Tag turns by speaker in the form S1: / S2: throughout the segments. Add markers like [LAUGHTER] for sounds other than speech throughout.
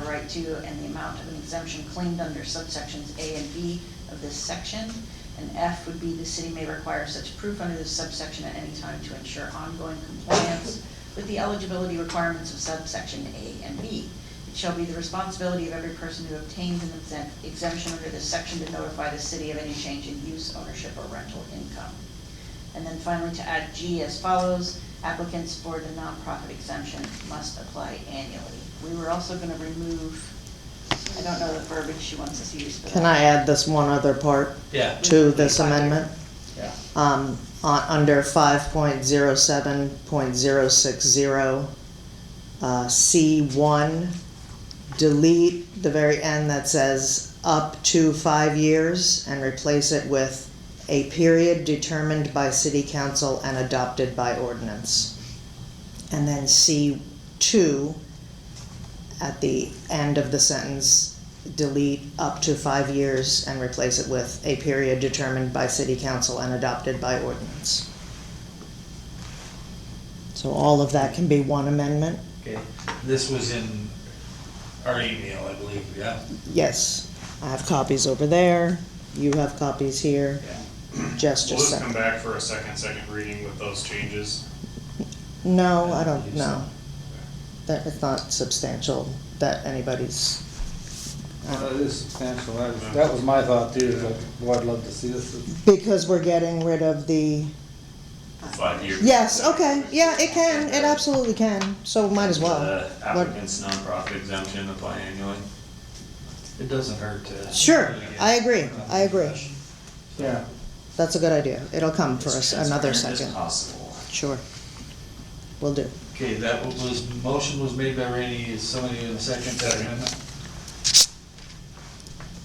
S1: right to and the amount of an exemption claimed under subsections A and B of this section. And F would be the city may require such proof under this subsection at any time to ensure ongoing compliance with the eligibility requirements of subsection A and B. It shall be the responsibility of every person who obtains an exemp- exemption under this section to notify the city of any change in use, ownership, or rental income. And then finally to add G as follows, applicants for the nonprofit exemption must apply annually. We were also gonna remove, I don't know the verbiage she wants us to use for that.
S2: Can I add this one other part
S3: Yeah,
S2: to this amendment?
S3: yeah.
S2: Um, on, under five point zero seven point zero six zero, uh, C one, delete the very end that says up to five years and replace it with a period determined by city council and adopted by ordinance. And then C two, at the end of the sentence, delete up to five years and replace it with a period determined by city council and adopted by ordinance. So all of that can be one amendment?
S3: Okay, this was in our email, I believe, yeah?
S2: Yes, I have copies over there, you have copies here,
S3: Yeah.
S2: Jess
S4: Will
S2: just
S4: this come
S2: sent.
S4: back for a second, second reading with those changes?
S2: No, I don't, no. That, it's not substantial that anybody's, um,
S5: Uh, It is substantial, that was, that was my thought too, is like, boy, I'd love to see this.
S2: because we're getting rid of the
S6: Five years.
S2: Yes, okay, yeah, it can, it absolutely can, so might as well.
S6: The applicant's nonprofit exemption apply annually.
S3: It doesn't hurt to.
S2: Sure, I agree, I agree,
S5: Yeah,
S2: that's a good idea, it'll come for
S6: As
S2: us another
S6: transparent
S2: second,
S6: As possible.
S2: sure. Will do.
S3: Okay, that was, motion was made by Randy, is somebody in second that amendment?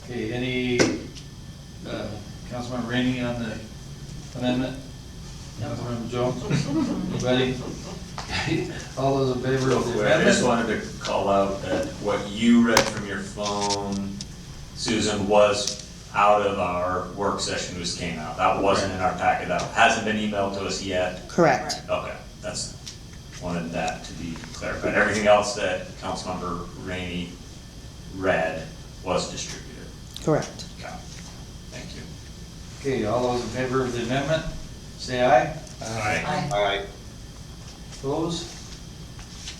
S3: Okay, any, uh, Councilmember Rainey on the amendment? Councilmember Jones? Anybody? [LAUGHS] All those in favor of the
S6: I just
S3: amendment?
S6: wanted to call out that what you read from your phone, Susan, was out of our work session, just came out. That wasn't in our packet, that hasn't been emailed to us yet.
S2: Correct,
S6: Okay, that's, wanted that to be clarified. Everything else that Councilmember Rainey read was distributed.
S2: correct.
S6: Okay, thank you.
S3: Okay, all those in favor of the amendment, say aye.
S4: Aye.
S1: I-
S3: Opposed?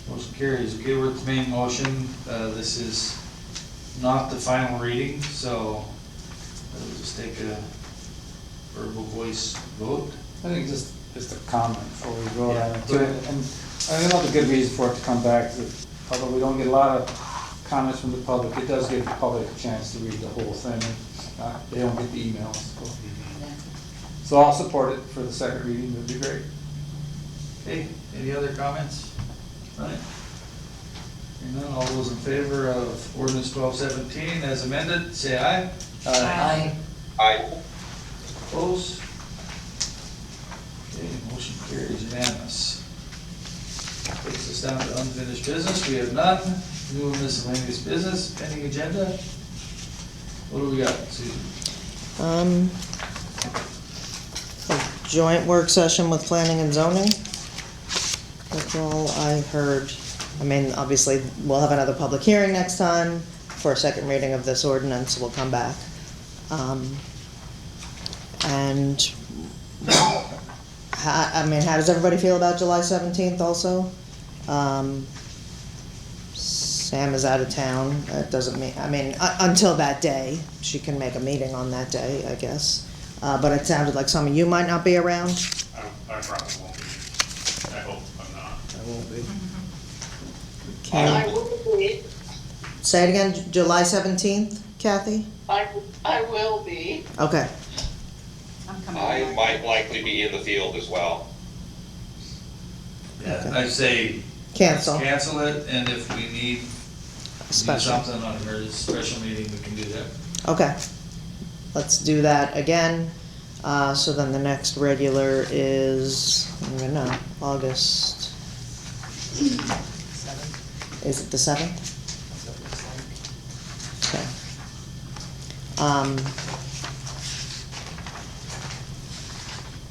S3: Motion carries. Okay, we're at the main motion. Uh, This is not the final reading, so we'll just take a verbal voice vote.
S5: I think just, just a comment before we go
S3: Yeah.
S5: on it too, and and another good reason for it to come back, is although we don't get a lot of comments from the public, it does give the public a chance to read the whole thing, uh, they don't get the emails. so. So I'll support it for the second reading, that'd be great.
S3: Okay, any other comments? Right. Hearing none, all those in favor of ordinance twelve seventeen as amended, say aye.
S1: Aye.
S3: Opposed? Okay, motion carries unanimous. Takes us down to unfinished business, we have none, new and miscellaneous business, pending agenda. What do we got, Susan?
S2: Um, a joint work session with planning and zoning. That's all I heard. I mean, obviously, we'll have another public hearing next time for a second reading of this ordinance, we'll come back. Um, and how, I mean, how does everybody feel about July seventeenth also? Um, Sam is out of town, that doesn't mean, I mean, u- until that day, she can make a meeting on that day, I guess. Uh, but it sounded like some of you might not be around.
S4: I, I probably won't be, I hope I'm not.
S2: Um,
S7: I will be,
S2: Say it again, J- July seventeenth, Kathy?
S7: I, I will be.
S2: Okay,
S1: I'm coming
S8: I
S1: back.
S8: might likely be in the field as well.
S3: Yeah, I say.
S2: cancel,
S3: Cancel it, and if we need, need
S2: special.
S3: something on a special meeting, we can do that.
S2: Okay, let's do that again. Uh, so then the next regular is, I don't even know, August. Is it the seventh? Okay. Um.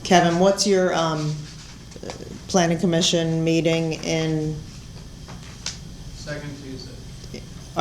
S2: Kevin, what's your, um, uh, planning commission meeting in
S9: Second Tuesday.